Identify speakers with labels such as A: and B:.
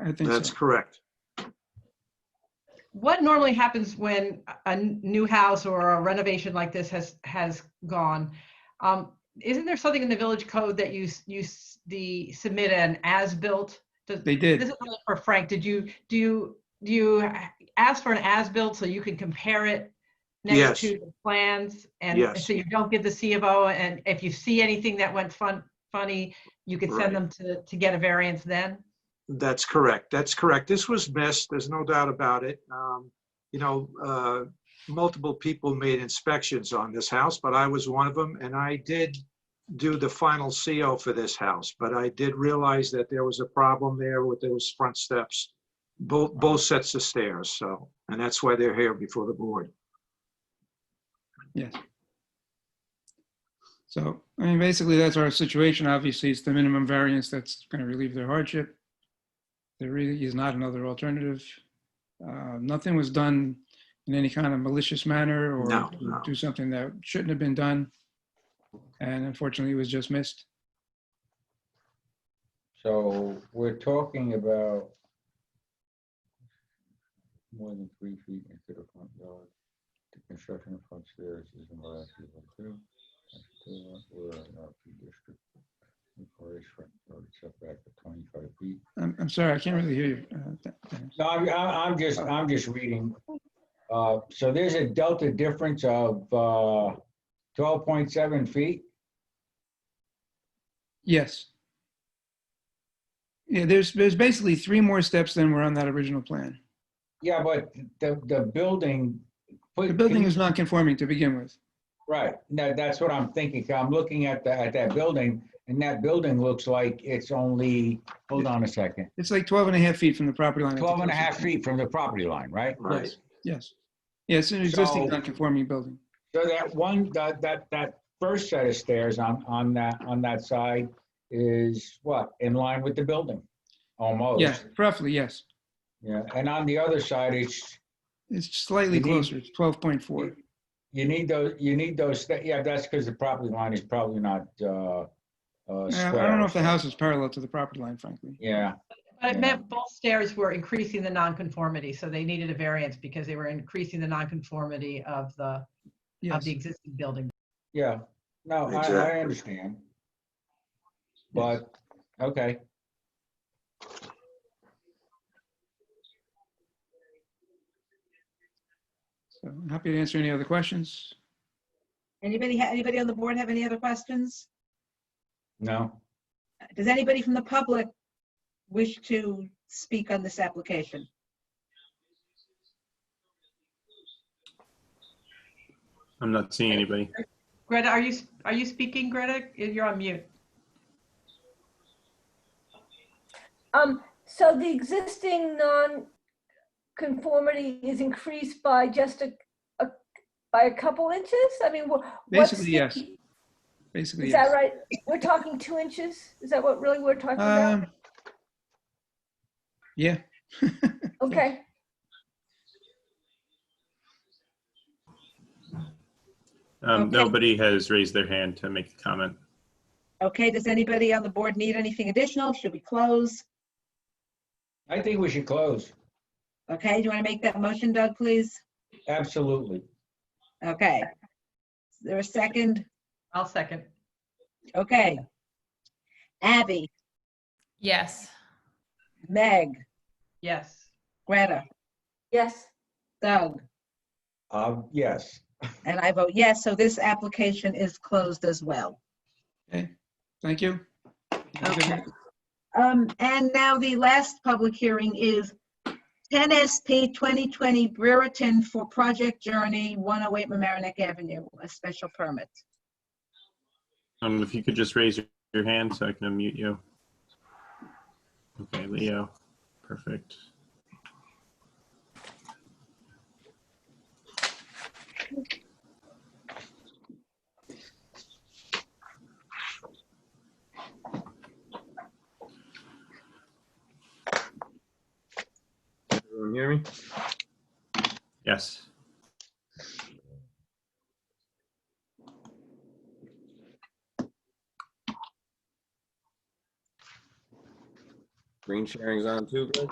A: I think
B: That's
A: so.
B: correct.
C: What normally happens when a- a new house or a renovation like this has, has gone? um, Isn't there something in the village code that you, s- you, s- the submit an as-built? Does-
A: They
C: This
A: did.
C: is really for Frank. Did you, do you, do you ask for an as-built so you can compare it
B: Yes.
C: next to the plans? And
B: Yes.
C: so you don't get the C of O, and if you see anything that went fun, funny, you could
B: Right.
C: send them to, to get a variance then?
B: That's correct. That's correct. This was missed. There's no doubt about it. Um, you know, uh, multiple people made inspections on this house, but I was one of them, and I did do the final CO for this house. But I did realize that there was a problem there with those front steps, both both sets of stairs. So, and that's why they're here before the board.
A: Yes. So, I mean, basically, that's our situation. Obviously, it's the minimum variance that's going to relieve their hardship. There really is not another alternative. Uh, Nothing was done in any kind of malicious manner
B: No,
A: or
B: no.
A: do something that shouldn't have been done. And unfortunately, it was just missed.
D: So we're talking about more than three feet into the front yard. The construction of front stairs is in the last year two. We're in our P district. Requires front yard setback of twenty-five feet.
A: I'm, I'm sorry, I can't really hear you. uh, Dan- Dan.
D: No, I'm, I- I'm just, I'm just reading. Uh, So there's a delta difference of uh, twelve point seven feet.
A: Yes. Yeah, there's, there's basically three more steps than were on that original plan.
D: Yeah, but the, the building.
A: The building is not conforming to begin with.
D: Right, no, that's what I'm thinking, 'cause I'm looking at that, at that building, and that building looks like it's only, hold on a second,
A: It's like 12 and a half feet from the property line. at the
D: 12 and a half
A: closest.
D: feet from the property line, right?
B: Right.
A: Yes, Yes. Yeah, it's an existing
D: So-
A: non-conforming building.
D: So that one, that, that, that first set of stairs on, on that, on that side is what, in line with the building?
A: Yeah,
D: Almost,
A: roughly, yes.
D: yeah, and on the other side, it's,
A: It's slightly
D: You need-
A: closer. It's 12.4.
D: you need those, you need those, sta- yeah, that's because the property line is probably not, uh, uh,
A: I I
D: square.
A: don't know if the house is parallel to the property line, frankly.
D: Yeah,
C: But it
D: Yeah.
C: meant both stairs were increasing the nonconformity, so they needed a variance because they were increasing the nonconformity of the, of
A: Yes.
C: the existing building.
D: Yeah, no, I, I
B: Exactly.
D: understand. But, okay,
A: So I'm happy to answer any other questions.
E: Anybody, ha- anybody on the board have any other questions?
D: no,
E: Does anybody from the public wish to speak on this application?
F: I'm not seeing anybody.
C: Greta, are you, are you speaking, Greta? You're on mute.
G: Um, so the existing non-conformity is increased by just a, a, by a couple inches? I mean, wha- what's
A: Basically,
G: the-
A: yes. Basically,
G: Is that
A: yes.
G: right? We're talking two inches? Is that what really we're talking about?
A: Um, Yeah,
G: Okay,
F: Um,
E: Okay.
F: Um, Nobody has raised their hand to make a comment.
E: Okay, does anybody on the board need anything additional? Should we close?
D: I think we should close,
E: Okay, do you want to make that motion, Doug, please?
D: absolutely.
E: Okay. Is there a second?
C: I'll second.
E: Okay. Abby,
H: Yes.
E: Meg,
C: Yes.
E: Greta,
G: yes.
E: Doug,
D: Uh, yes,
E: and I vote yes, so this application is closed as well.
A: okay. Thank you.
E: Okay. Um, and now the last public hearing is 10 SP 2020 Brereton for Project Journey 108 Mamaroneck Avenue, a special permit.
F: Um, if you could just raise your- your hand so I can unmute you. Okay, Leo. Perfect.
I: Everyone hear me?
F: Yes.
I: Green sharing's on too, Greg?